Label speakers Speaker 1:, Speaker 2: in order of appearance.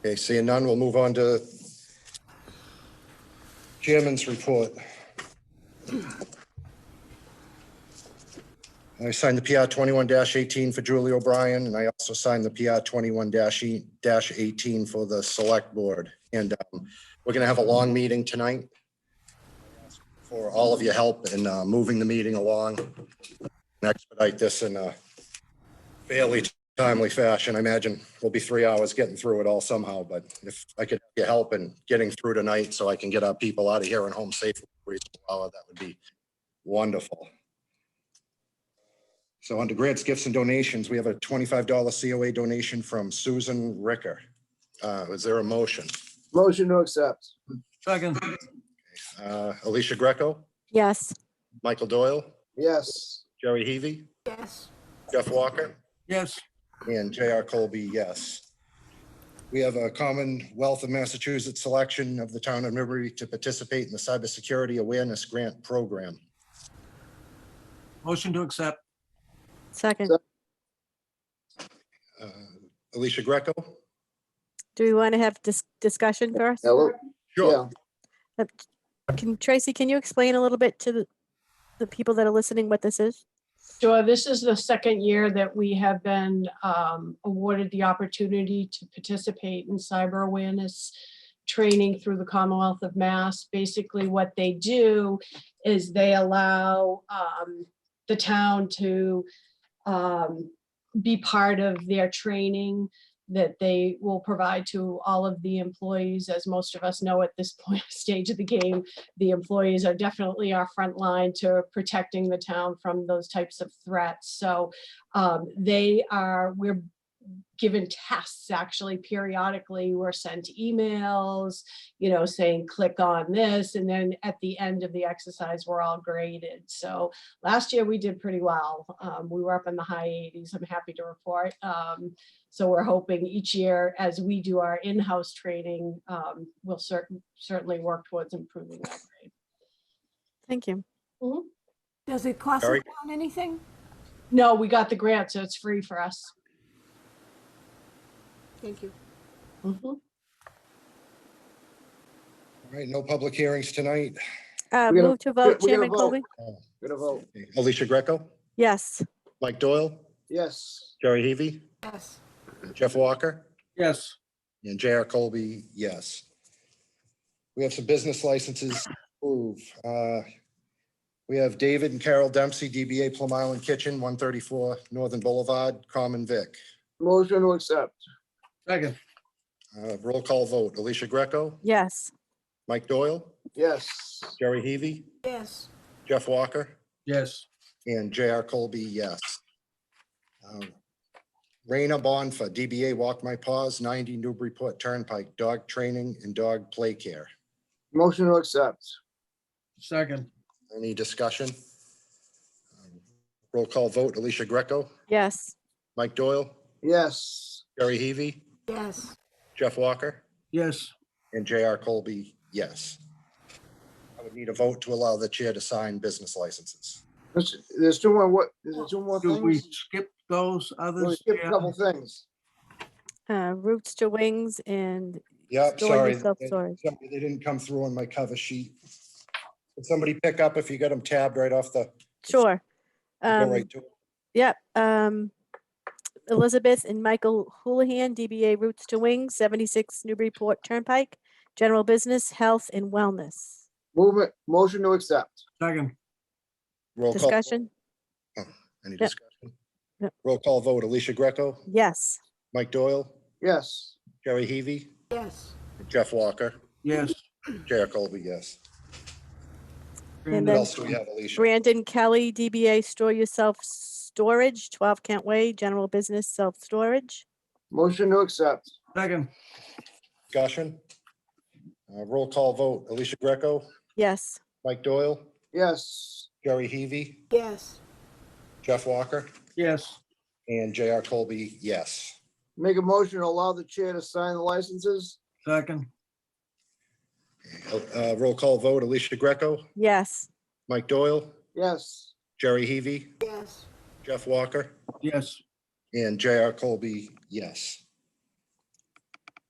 Speaker 1: Okay, seeing none, we'll move on to chairman's report. I signed the PR twenty-one eighteen for Julie O'Brien, and I also signed the PR twenty-one eighteen for the select board. And um, we're gonna have a long meeting tonight for all of your help in uh, moving the meeting along. and Expedite this in a fairly timely fashion. I imagine we'll be three hours getting through it all somehow, but if I could get help in getting through tonight so I can get our people out of here and home safely, for a reasonable hour, that would be wonderful. So under grants, gifts and donations, we have a twenty-five dollar COA donation from Susan Ricker. Uh, is there a motion?
Speaker 2: Motion to accept.
Speaker 3: Second,
Speaker 1: Uh, Alicia Greco,
Speaker 4: Yes.
Speaker 1: Michael Doyle,
Speaker 2: Yes.
Speaker 1: Jerry Heavy? Yes. Jeff Walker?
Speaker 3: yes,
Speaker 1: And J.R. Colby, yes. We have a Commonwealth of Massachusetts selection of the town of Newbury to participate in the Cybersecurity Awareness Grant Program.
Speaker 3: motion to accept,
Speaker 4: Second,
Speaker 2: So-
Speaker 1: Uh, Alicia Greco?
Speaker 4: do we want to have dis- discussion first?
Speaker 2: Hello? Yeah.
Speaker 4: Uh, Can, Tracy, can you explain a little bit to the, the people that are listening what this is?
Speaker 5: Sure, uh, this is the second year that we have been um, awarded the opportunity to participate in cyber awareness training through the Commonwealth of Mass. Basically, what they do is they allow um, the town to um, be part of their training that they will provide to all of the employees. As most of us know at this point, stage of the game, the employees are definitely our front line to protecting the town from those types of threats. So um, they are, we're given tests actually periodically. We're sent emails, you know, saying click on this. And then at the end of the exercise, we're all graded. So last year we did pretty well. Um, we were up in the high 80s. I'm happy to report. Um, so we're hoping each year as we do our in-house training, um, we'll certainly certainly work towards improving that grade.
Speaker 4: Thank you.
Speaker 6: Does it cost the
Speaker 1: Sorry?
Speaker 6: town anything?
Speaker 5: No, we got the grant, so it's free for us.
Speaker 6: Thank you.
Speaker 5: Mhm.
Speaker 1: All right, no public hearings tonight.
Speaker 4: Uh,
Speaker 2: We gotta-
Speaker 4: move to vote,
Speaker 2: we gotta
Speaker 4: Chairman
Speaker 2: vote.
Speaker 4: Colby?
Speaker 2: Gonna vote.
Speaker 1: Alicia Greco,
Speaker 4: Yes.
Speaker 1: Mike Doyle,
Speaker 2: Yes.
Speaker 1: Jerry Heavy,
Speaker 6: Yes.
Speaker 1: Jeff Walker?
Speaker 3: yes,
Speaker 1: And J.R. Colby, yes. We have some business licenses to approve. Uh, We have David and Carol Dempsey, DBA Plum Island Kitchen, 134 Northern Boulevard, Common Vic.
Speaker 2: Motion to accept.
Speaker 3: second,
Speaker 1: Uh, Roll call vote, Alicia Greco,
Speaker 4: Yes.
Speaker 1: Mike Doyle,
Speaker 2: Yes.
Speaker 1: Jerry Heavy,
Speaker 6: Yes.
Speaker 1: Jeff Walker,
Speaker 3: yes,
Speaker 1: and J.R. Colby, yes. Um, Raina Bonfa, DBA Walk My Paws, 90 Newburyport Turnpike, Dog Training and Dog Play Care.
Speaker 2: Motion to accept.
Speaker 3: second,
Speaker 1: Any discussion? Um, Roll call vote, Alicia Greco,
Speaker 4: Yes.
Speaker 1: Mike Doyle,
Speaker 2: Yes.
Speaker 1: Jerry Heavy,
Speaker 6: Yes.
Speaker 1: Jeff Walker,
Speaker 3: yes,
Speaker 1: and J.R. Colby, yes. I would need a vote to allow the chair to sign business licenses.
Speaker 2: There's there's two more, what, is there two more
Speaker 3: do we
Speaker 2: things?
Speaker 3: skip those
Speaker 2: We
Speaker 3: others?
Speaker 2: skipped a
Speaker 3: Yeah.
Speaker 2: couple things.
Speaker 4: Uh, roots to wings and
Speaker 1: Yep,
Speaker 4: Store
Speaker 1: sorry.
Speaker 4: yourself,
Speaker 1: They
Speaker 4: sorry.
Speaker 1: somebody- they didn't come through on my cover sheet. Can Somebody pick up if you got them tabbed right off the,
Speaker 4: sure.
Speaker 1: go
Speaker 4: Um,
Speaker 1: right to.
Speaker 4: yep. Um, Elizabeth and Michael Houlihan, DBA Roots to Wings, 76 Newburyport Turnpike, General Business, Health and Wellness.
Speaker 2: Movement, motion to accept.
Speaker 3: Second,
Speaker 1: Roll call.
Speaker 4: Discussion?
Speaker 1: Any
Speaker 4: Yep.
Speaker 1: discussion?
Speaker 4: Yep.
Speaker 1: Roll call vote, Alicia Greco,
Speaker 4: Yes.
Speaker 1: Mike Doyle,
Speaker 2: Yes.
Speaker 1: Jerry Heavy,
Speaker 6: Yes.
Speaker 1: Jeff Walker,
Speaker 3: yes.
Speaker 1: J.R. Colby, yes.
Speaker 4: And
Speaker 1: What
Speaker 4: then-
Speaker 1: else do we have, Alicia?
Speaker 4: Brandon Kelly, DBA Store Yourself Storage, 12 Kent Way, General Business Self Storage.
Speaker 2: Motion to accept.
Speaker 3: Second,
Speaker 1: Discussion? Uh, Roll call vote, Alicia Greco,
Speaker 4: Yes.
Speaker 1: Mike Doyle,
Speaker 2: Yes.
Speaker 1: Jerry Heavy,
Speaker 6: Yes.
Speaker 1: Jeff Walker,
Speaker 3: yes,
Speaker 1: and J.R. Colby, yes.
Speaker 2: Make a motion to allow the chair to sign the licenses.
Speaker 3: second,
Speaker 1: Uh, Roll call vote, Alicia Greco,
Speaker 4: Yes.
Speaker 1: Mike Doyle,
Speaker 2: Yes.
Speaker 1: Jerry Heavy,
Speaker 6: Yes.
Speaker 1: Jeff Walker,
Speaker 3: yes,
Speaker 1: and J.R. Colby, yes.